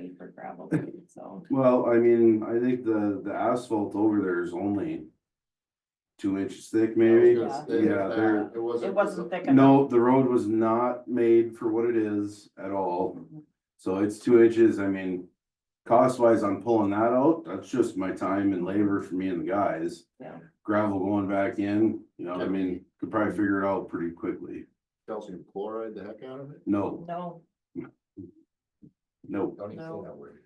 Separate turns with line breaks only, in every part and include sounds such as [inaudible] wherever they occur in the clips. [laughs]
gravel, pit, so.
Well, I mean, I think the, the asphalt over there is only two inches thick maybe.
I was gonna
say,
Yeah,
it's
there,
It wasn't.
It wasn't thick enough.
no, the road was not made for what it is at all. So it's two inches, I mean, cost wise on pulling that out, that's just my time and labor for me and the guys.
Yeah.
Gravel going back in, you know, what I
Yeah.
mean, could probably figure it out pretty quickly.
Calcium chloride the heck out of it?
No,
No,
no.
Don't even
No.
say that word.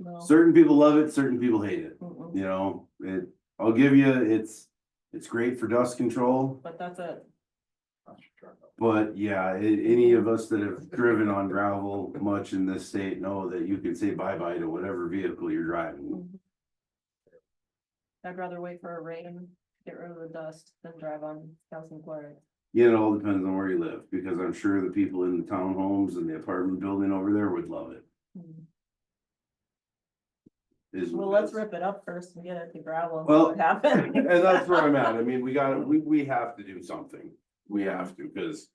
no.
Certain people love it, certain people hate it.
Mm-mm.
You know, it, I'll give you, it's, it's great for dust control,
But that's it.
but yeah, a- any of us that have driven on gravel much in this state know that you can say bye-bye to whatever vehicle you're driving.
Mhm. I'd rather wait for a rain, get rid of the dust than drive on calcium chloride.
Yeah, It all depends on where you live, because I'm sure the people in the townhomes and the apartment building over there would love it.
Mm.
is what
Well,
it
let's
is.
rip it up first and get it to gravel and see
Well, eh.
what happens.
[laughs] And that's where I'm at. I mean, we gotta, we, we have to do something. We have to, because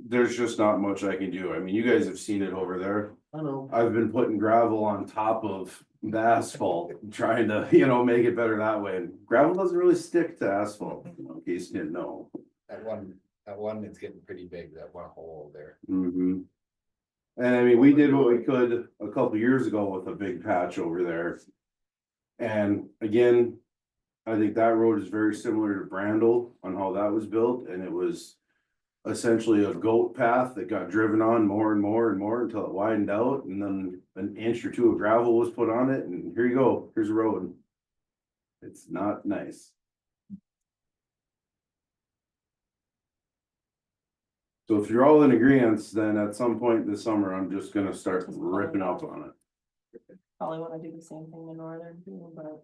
there's just not much I can do. I mean, you guys have seen it over there.
I know.
I've been putting gravel on top of the asphalt, trying to, you know, make it better that way. And Gravel doesn't really stick to asphalt, you know, in case you didn't know.
That one, that one that's getting pretty big, that one hole there.
Mhm. And I mean, we did what we could a couple years ago with a big patch over there. And again, I think that road is very similar to Brandle on how that was built and it was essentially a goat path that got driven on more and more and more until it widened out and then an inch or two of gravel was put on it and here you go, here's a road. It's not nice. So if you're all in agreement, then at some point this summer, I'm just gonna start ripping up on it.
Probably wanna do the same thing in northern too, but.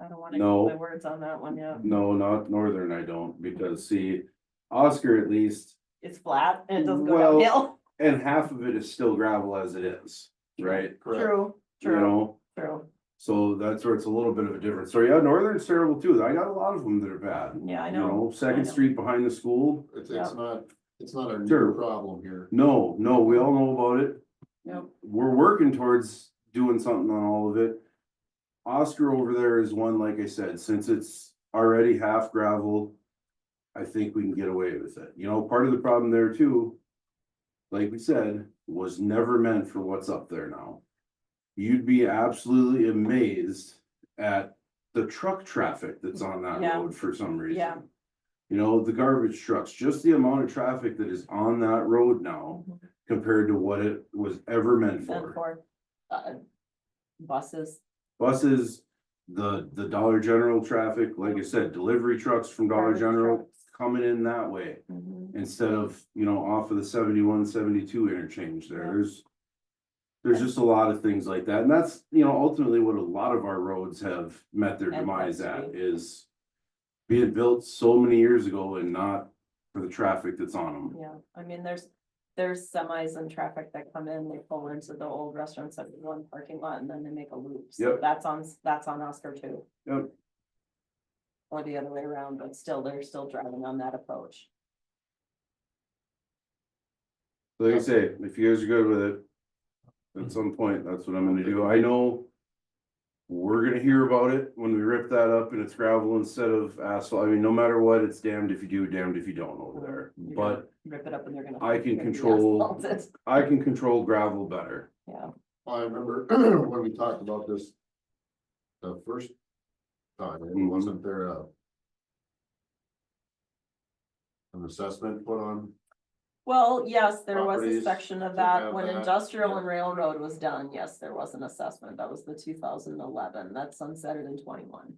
I don't wanna eat
No.
my words on that one yet.
No, not northern, I don't, because see, Oscar at least,
It's flat and it doesn't go
Well,
downhill.
and half of it is still gravel as it is, right?
Correct.
True,
You
true,
know,
true.
so that's where it's a little bit of a difference. So yeah, northern's terrible too. I got a lot of them that are bad.
Yeah, I
You
know. I
Second
know.
Street behind the school,
It's,
Yeah.
it's not, it's not a new
Sure.
problem here.
no, no, we all know about it.
Yep.
we're working towards doing something on all of it. Oscar over there is one, like I said, since it's already half gravel. I think we can get away with it. You know, part of the problem there too. Like we said, was never meant for what's up there now. You'd be absolutely amazed at the truck traffic that's on that
Yeah.
road for some reason.
Yeah.
You know, the garbage trucks, just the amount of traffic that is on that road now
Mhm.
compared to what it was ever meant
And
for.
for, uh, buses,
Buses, the, the Dollar General traffic, like I said, delivery trucks from Dollar
Garbage
General
trucks.
coming in that way.
mhm,
Instead of, you know, off of the 71, 72 interchange there,
Yeah.
there's. There's just a lot of things like that, and that's, you know, ultimately what a lot of our roads have met their
And
demise
that's
at
right.
is. Being built so many years ago and not for the traffic that's on them.
yeah, I mean, there's, there's semis and traffic that come in, they pull into the old restaurants at one parking lot and then they make a loop. So
Yep.
That's on, that's on Oscar too.
Yep.
Or the other way around, but still, they're still driving on that approach.
Like I say, if you guys are good with it, at some point, that's what I'm gonna do. I know. We're gonna hear about it when we rip that up and it's gravel instead of asphalt. I mean, no matter what, it's damned if you do, damned if you don't over there.
You're gonna
But
Rip it up and they're gonna.
I can
they're gonna be
control-
asphalted.
I can control gravel better.
Yeah,
I remember [clears throat] when we talked about this. The first time, it
Mhm.
wasn't there a. An assessment put on,
[laughs] well, yes, there was a
Properties
section of
to
that
have
when
that,
industrial
yeah.
and railroad was done, yes, there was an assessment, that was the two thousand eleven, that sunsetted in twenty-one.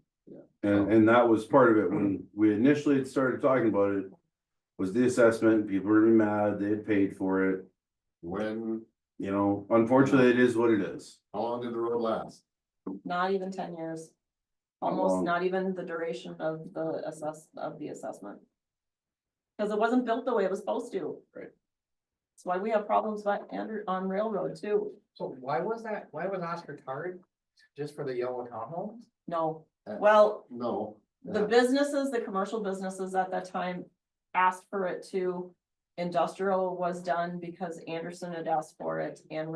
And, and that was part of it when we initially had started talking about it. Was the assessment, people were mad, they had paid for it,
when,
you know, unfortunately, it is what it is.
how long did the road last?
Not even ten years.
How
Almost
long?
not even the duration of the assess, of the assessment. Cause it wasn't built the way it was supposed to.
Right.
That's why we have problems on, Andrew- on railroad too.
So why was that, why was Oscar tarred just for the yellow townhomes?
No,
Uh,
well,
No.
the businesses, the commercial businesses at that time asked for it too. Industrial was done because Anderson had asked for it and